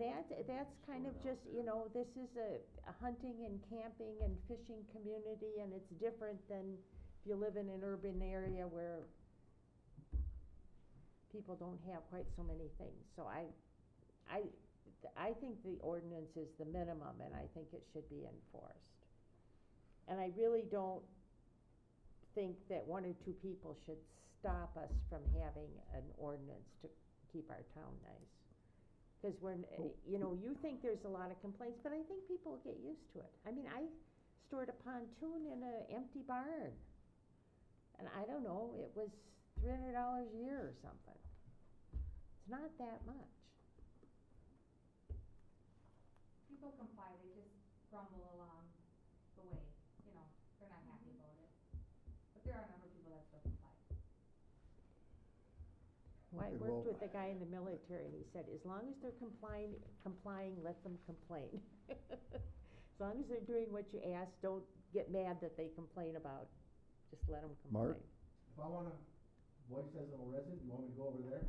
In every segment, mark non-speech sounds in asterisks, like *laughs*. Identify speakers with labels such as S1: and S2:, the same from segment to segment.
S1: that, that's kind
S2: Throw
S1: of
S2: it out
S1: just, you
S2: there.
S1: know, this is a, a hunting and camping and fishing community, and it's different than if you live in an urban area where people don't have quite so many things, so I, I, I think the ordinance is the minimum, and I think it should be enforced. And I really don't think that one or two people should stop us from having an ordinance to keep our town nice. Cause when, eh, you know, you think there's a lot of complaints, but I think people get used to it. I mean, I stored a pontoon in an empty barn. And I don't know, it was three hundred dollars a year or something. It's not that much.
S3: People comply, they just grumble along the way, you know, they're not happy about it. But there are a number of people that still comply.
S1: Well, I
S4: Okay,
S1: worked
S4: well-
S1: with a guy in the military and he said, as long as they're complying, complying, let them complain. *laughs* As long as they're doing what you ask, don't get mad that they complain about, just let them
S4: Mark?
S1: complain.
S5: If I wanna voice as a resident, you want me to go over there,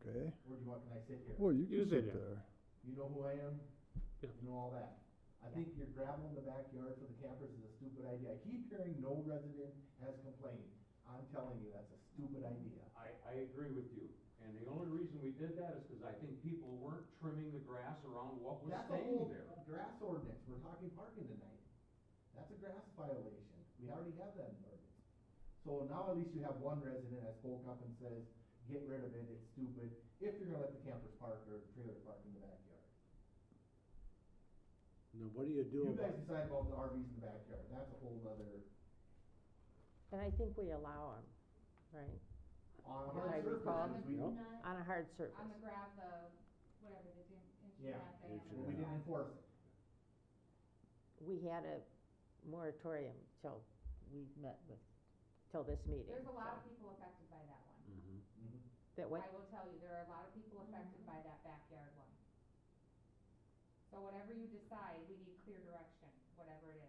S4: Okay,
S5: or do you want, can I sit here?
S4: well, you
S2: You
S4: can
S2: sit
S4: sit
S2: down.
S4: there.
S5: You know who I am?
S2: Yeah.
S5: You know all that. I think your gravel in the backyard for the campers is a stupid idea. I keep hearing no resident has complained. I'm telling you, that's a stupid idea.
S6: I, I agree with you, and the only reason we did that is because I think people weren't trimming the grass around what was
S5: That's a
S6: staying
S5: whole
S6: there.
S5: grass ordinance, we're talking parking tonight. That's a grass violation, we already have that in the ordinance. So now at least you have one resident that spoke up and says, get rid of it, it's stupid, if you're gonna let the campers park or trailer park in the backyard.
S2: Now, what do you do
S5: You
S2: about?
S5: guys decide about the RVs in the backyard, that's a whole other,
S1: And I think we allow them, right,
S5: on
S1: If I
S5: hard
S1: recall.
S5: surfaces, we,
S2: Yep.
S3: Not
S1: on a hard surface.
S3: on the graph, the, whatever, the in- inch
S5: Yeah,
S3: graph that I
S2: inch
S3: have.
S5: we didn't enforce it.
S1: We had a moratorium till we met with, till this meeting.
S3: There's a
S1: so-
S3: lot of people affected by that one.
S2: Mhm.
S5: Mhm.
S1: That what,
S3: I will tell you, there are a lot of people affected by that backyard one. So whatever you decide, we need clear direction, whatever it is.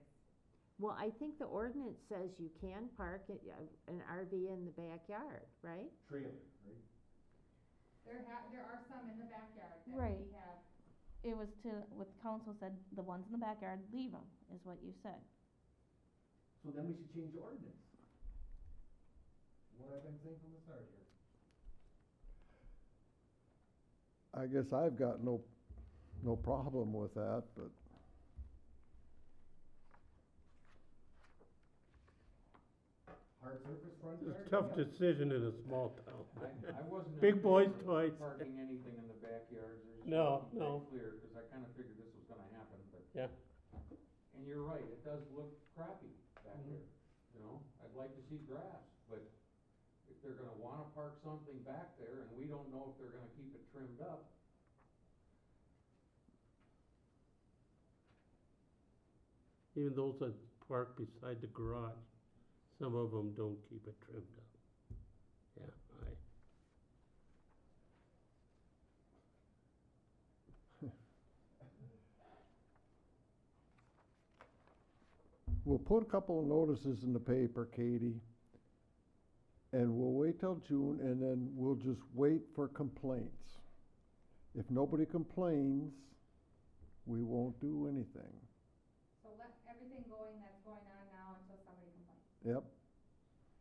S1: well, I think the ordinance says you can park it, uh, an RV in the backyard, right?
S5: Trailer, right?
S3: There ha, there are some in the backyard that
S7: Right.
S3: we have,
S7: It was to, what the council said, the ones in the backyard, leave them, is what you said.
S5: So then we should change the ordinance. What I've been saying from the start here.
S4: I guess I've got no, no problem with that, but
S5: Hard surface front yard.
S8: It's a tough
S5: yep.
S8: decision in a small town.
S6: I, I wasn't. in
S8: Big
S6: favor
S8: boys'
S6: of
S8: toys.
S6: Parking anything in the backyards, there's.
S8: No,
S6: nothing
S8: no.
S6: Clear, because I kinda figured this was gonna happen, but.
S8: Yeah.
S6: And you're right, it does look crappy back
S5: Mhm.
S6: there, you know, I'd like to see grass, but if they're gonna wanna park something back there and we don't know if they're gonna keep it trimmed up,
S8: Even those that park beside the garage, some of them don't keep it trimmed up. Yeah, I,
S4: we'll put a couple of notices in the paper, Katie. And we'll wait till June and then we'll just wait for complaints. If nobody complains, we won't do anything.
S3: so let everything going that's going on now until somebody complains.
S4: Yep,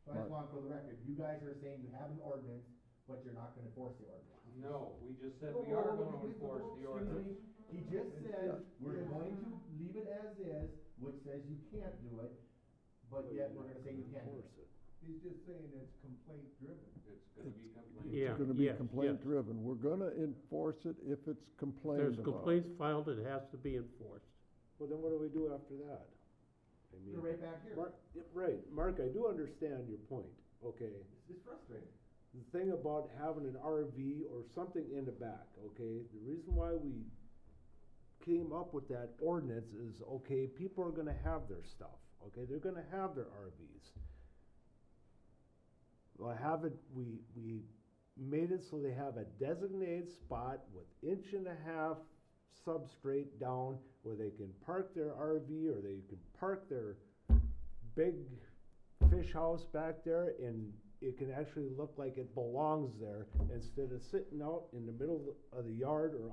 S5: So I just want for the record, you guys are saying you have an ordinance, but you're not gonna enforce the ordinance.
S6: no, we just said
S5: Whoa,
S6: we
S5: whoa,
S6: are
S5: whoa,
S6: gonna
S5: whoa,
S6: enforce
S5: whoa, excuse
S6: the ordinance.
S5: me. He just said, we're going to leave it as is, which says you can't do it, but yet we're gonna say you can do it. He's just saying it's complaint driven.
S6: It's gonna be complained.
S8: Yeah,
S4: it's gonna be
S8: yes,
S4: complaint
S8: yes.
S4: driven. We're gonna enforce it if it's complained about.
S8: there's complaints filed, it has to be enforced.
S9: Well, then what do we do after that? I mean,
S5: You're right back here.
S9: Mark, yeah, right, Mark, I do understand your point, okay?
S5: It's, it's frustrating.
S9: The thing about having an RV or something in the back, okay? The reason why we came up with that ordinance is, okay, people are gonna have their stuff, okay? They're gonna have their RVs. Well, have it, we, we made it so they have a designated spot with inch and a half substrate down where they can park their RV or they can park their big fish house back there and it can actually look like it belongs there instead of sitting out in the middle of the yard or